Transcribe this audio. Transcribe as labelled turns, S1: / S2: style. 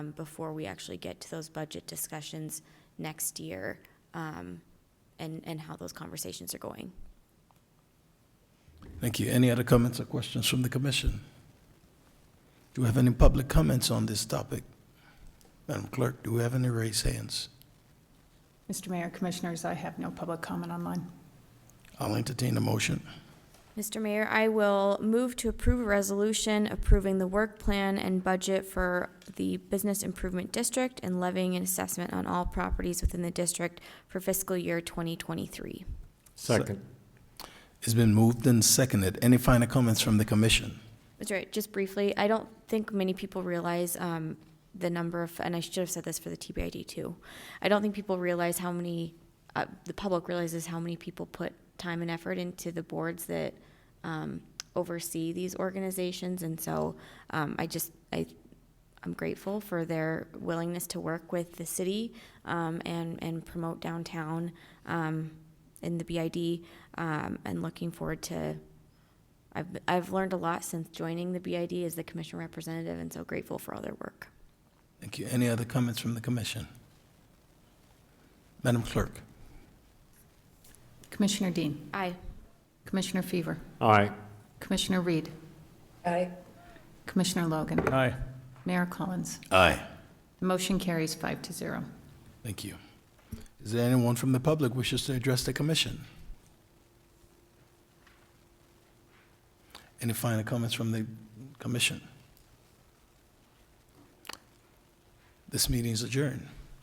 S1: um, before we actually get to those budget discussions next year, um, and, and how those conversations are going.
S2: Thank you. Any other comments or questions from the commission? Do we have any public comments on this topic? Madam Clerk, do we have any raised hands?
S3: Mr. Mayor, Commissioners, I have no public comment on mine.
S2: I'll entertain a motion.
S1: Mr. Mayor, I will move to approve a resolution approving the work plan and budget for the Business Improvement District and levying an assessment on all properties within the district for fiscal year 2023.
S2: Second. It's been moved and seconded. Any final comments from the commission?
S1: That's right, just briefly, I don't think many people realize um, the number of, and I should have said this for the TBID too. I don't think people realize how many, uh, the public realizes how many people put time and effort into the boards that um, oversee these organizations. And so um, I just, I, I'm grateful for their willingness to work with the city um, and, and promote downtown um, in the BID um, and looking forward to I've, I've learned a lot since joining the BID as the commission representative and so grateful for all their work.
S2: Thank you. Any other comments from the commission? Madam Clerk?
S3: Commissioner Dean.
S1: Aye.
S3: Commissioner Fever.
S4: Aye.
S3: Commissioner Reed.
S5: Aye.
S3: Commissioner Logan.
S4: Aye.
S3: Mayor Collins.
S2: Aye.
S3: The motion carries five to zero.
S2: Thank you. Is there anyone from the public wishes to address the commission? Any final comments from the commission? This meeting is adjourned.